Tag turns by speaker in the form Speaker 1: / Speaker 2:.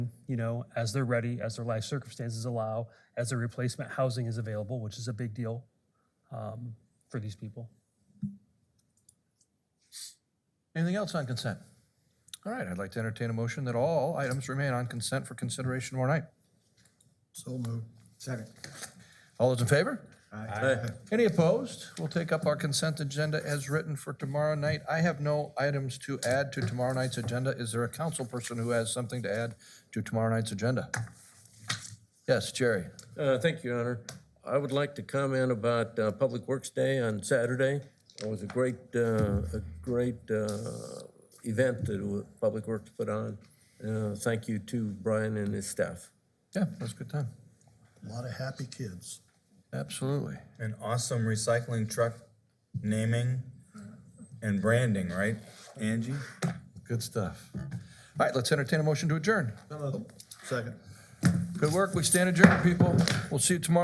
Speaker 1: you know, as they're ready, as their life circumstances allow, as their replacement housing is available, which is a big deal um, for these people.
Speaker 2: Anything else on consent? All right, I'd like to entertain a motion that all items remain on consent for consideration tomorrow night.
Speaker 3: So moved. Second.
Speaker 2: All those in favor?
Speaker 3: Aye.
Speaker 2: Any opposed? We'll take up our consent agenda as written for tomorrow night. I have no items to add to tomorrow night's agenda. Is there a council person who has something to add to tomorrow night's agenda? Yes, Jerry.
Speaker 4: Uh, Thank you, Your Honor. I would like to comment about uh, Public Works Day on Saturday. It was a great, uh, a great uh, event that Public Works put on. Uh, Thank you to Brian and his staff.
Speaker 2: Yeah, that's a good time.
Speaker 3: A Lot of happy kids.
Speaker 2: Absolutely.
Speaker 5: An awesome recycling truck naming and branding, right, Angie?
Speaker 2: Good stuff. All right, let's entertain a motion to adjourn.
Speaker 3: Second.
Speaker 2: Good work. We stand adjourned, people. We'll see you tomorrow.